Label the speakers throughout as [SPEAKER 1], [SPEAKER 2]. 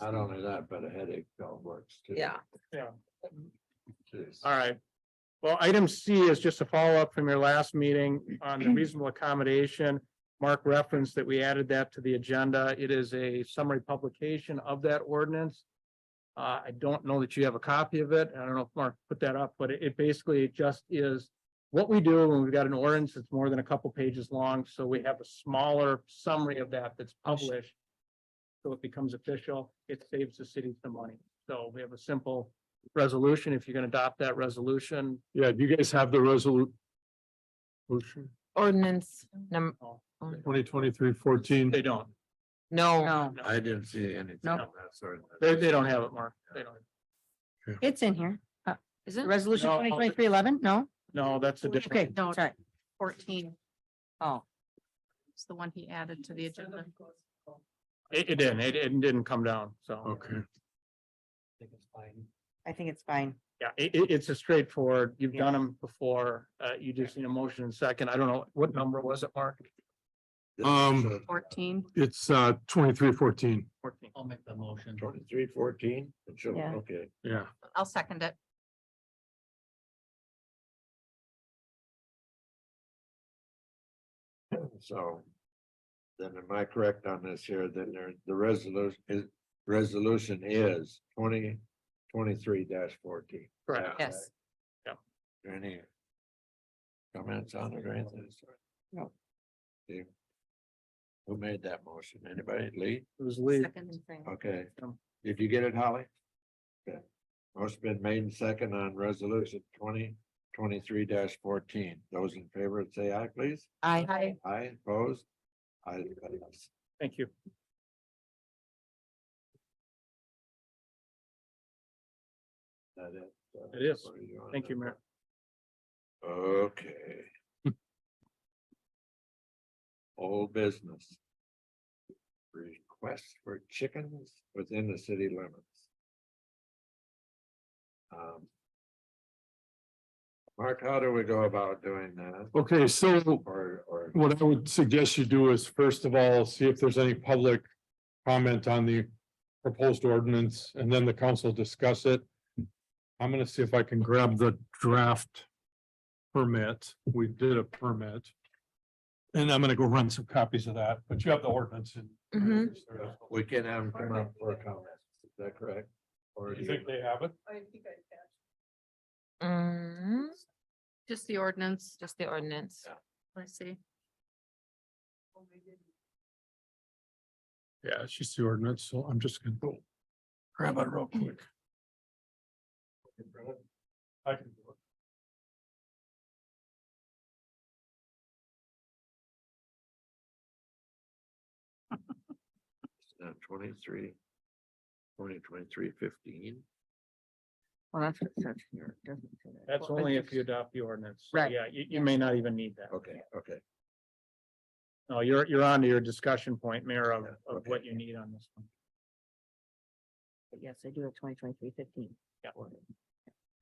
[SPEAKER 1] Not only that, but a headache all works too.
[SPEAKER 2] Yeah,
[SPEAKER 1] Jeez.
[SPEAKER 3] All right. Well, item C is just a follow-up from your last meeting on the reasonable accommodation. Mark referenced that we added that to the agenda. It is a summary publication of that ordinance. Uh, I don't know that you have a copy of it. I don't know if Mark put that up, but it- it basically just is what we do when we've got an ordinance that's more than a couple pages long, so we have a smaller summary of that that's published. So it becomes official. It saves the city some money. So we have a simple resolution, if you're gonna adopt that resolution.
[SPEAKER 4] Yeah, do you guys have the resolu- resolution?
[SPEAKER 2] ordinance number,
[SPEAKER 4] Twenty twenty-three fourteen,
[SPEAKER 3] They don't.
[SPEAKER 2] no,
[SPEAKER 1] I didn't see anything.
[SPEAKER 5] Nope.
[SPEAKER 1] of that sort.
[SPEAKER 3] They, they don't have it, Mark. They don't.
[SPEAKER 5] It's in here. Uh,
[SPEAKER 2] is it
[SPEAKER 5] Resolution
[SPEAKER 3] No.
[SPEAKER 5] twenty twenty-three eleven? No?
[SPEAKER 3] No, that's a
[SPEAKER 5] Okay,
[SPEAKER 3] different.
[SPEAKER 5] no, sorry.
[SPEAKER 6] fourteen.
[SPEAKER 5] Oh.
[SPEAKER 6] It's the one he added to the agenda.
[SPEAKER 3] It, it didn't, it, it didn't come down, so.
[SPEAKER 4] okay.
[SPEAKER 5] I think it's fine.
[SPEAKER 3] Yeah, it, it, it's a straightforward, you've done them before, uh, you just need a motion and second. I don't know, what number was it, Mark?
[SPEAKER 4] Um,
[SPEAKER 6] Fourteen.
[SPEAKER 4] It's uh twenty-three fourteen,
[SPEAKER 3] Fourteen.
[SPEAKER 1] I'll make the motion. Twenty-three fourteen, sure,
[SPEAKER 5] Yeah.
[SPEAKER 1] okay.
[SPEAKER 4] yeah.
[SPEAKER 6] I'll second it.
[SPEAKER 1] So. Then am I correct on this here? Then there, the resolution is, resolution is twenty twenty-three fourteen.
[SPEAKER 3] Correct.
[SPEAKER 6] Yes.
[SPEAKER 3] Yep.
[SPEAKER 1] Any? Comments on the grant?
[SPEAKER 5] No.
[SPEAKER 1] Steve? Who made that motion? Anybody? Lee?
[SPEAKER 3] It was Lee.
[SPEAKER 6] Second.
[SPEAKER 1] Okay.
[SPEAKER 3] Um.
[SPEAKER 1] Did you get it, Holly? Okay. Motion been made and second on resolution twenty twenty-three fourteen. Those in favor say aye, please.
[SPEAKER 5] I,
[SPEAKER 6] Hi,
[SPEAKER 1] Aye, opposed? Aye. it is.
[SPEAKER 3] Thank you.
[SPEAKER 1] That uh, it? So,
[SPEAKER 3] It is.
[SPEAKER 1] what are on
[SPEAKER 3] Thank you,
[SPEAKER 1] that?
[SPEAKER 3] Mayor.
[SPEAKER 1] Okay. Old business. Request for chickens within the city limits. Um, Mark, how do we go about doing that?
[SPEAKER 4] Okay, so
[SPEAKER 1] Or, or,
[SPEAKER 4] what I would suggest you do is first of all, see if there's any public comment on the proposed ordinance and then the council discuss it. I'm gonna see if I can grab the draft permit. We did a permit. And I'm gonna go run some copies of that, but you have the ordinance and.
[SPEAKER 2] Mhm.
[SPEAKER 1] we can have them come up for a comment, is that correct? Or do
[SPEAKER 4] You think they have it?
[SPEAKER 2] mm,
[SPEAKER 6] just the ordinance,
[SPEAKER 2] just the ordinance.
[SPEAKER 6] I see.
[SPEAKER 4] Yeah, it's just the ordinance, so I'm just gonna go grab it real quick. I can do it.
[SPEAKER 1] Uh, twenty-three. Twenty twenty-three fifteen.
[SPEAKER 5] well, that's what it says here. It doesn't say that.
[SPEAKER 3] That's
[SPEAKER 5] Well,
[SPEAKER 3] only
[SPEAKER 5] it's
[SPEAKER 3] if you adopt the ordinance. So,
[SPEAKER 5] Right.
[SPEAKER 3] Yeah, you, you may not even need that.
[SPEAKER 1] Okay, okay.
[SPEAKER 3] No, you're, you're on to your discussion point, Mayor, of,
[SPEAKER 1] Yeah,
[SPEAKER 3] of
[SPEAKER 1] okay.
[SPEAKER 3] what you need on this one.
[SPEAKER 5] just- Yes, I do have twenty twenty-three fifteen.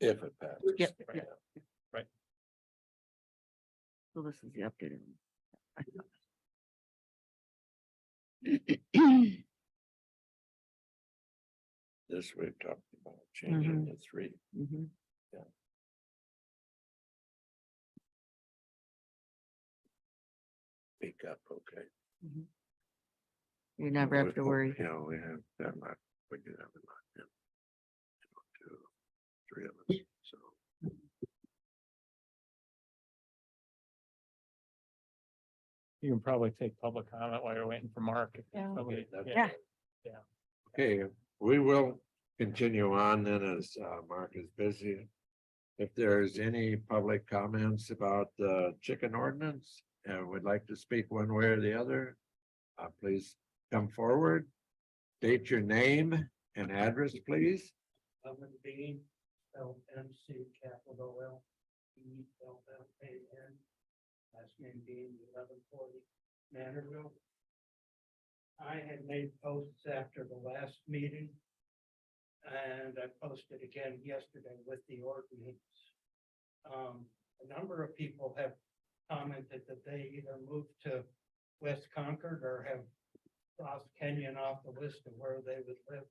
[SPEAKER 1] If it passes.
[SPEAKER 5] Yep,
[SPEAKER 1] Right.
[SPEAKER 5] yep. So this is the updated. one.
[SPEAKER 1] This we've talked about changing to three.
[SPEAKER 5] Mhm.
[SPEAKER 1] Pick up, okay.
[SPEAKER 5] You never have to worry.
[SPEAKER 1] Yeah, we have that much, we do have a lot. yeah. Two, three of us, so.
[SPEAKER 3] You can probably take public comment while you're waiting for Mark. if
[SPEAKER 6] Yeah.
[SPEAKER 3] somebody-
[SPEAKER 1] Okay,
[SPEAKER 3] yeah.
[SPEAKER 5] Yeah.
[SPEAKER 1] Okay, we will continue on then as uh Mark is busy. If there's any public comments about the chicken ordinance and would like to speak one way or the other. Uh, please come forward, state your name and address, please.
[SPEAKER 7] I'm in Bean, spelled M C capital L, B L L A N. Last name being eleven forty Manorville. I had made posts after the last meeting. And I posted again yesterday with the ordinance. Um, a number of people have commented that they either moved to West Concord or have crossed Kenyon off the list of where they would live.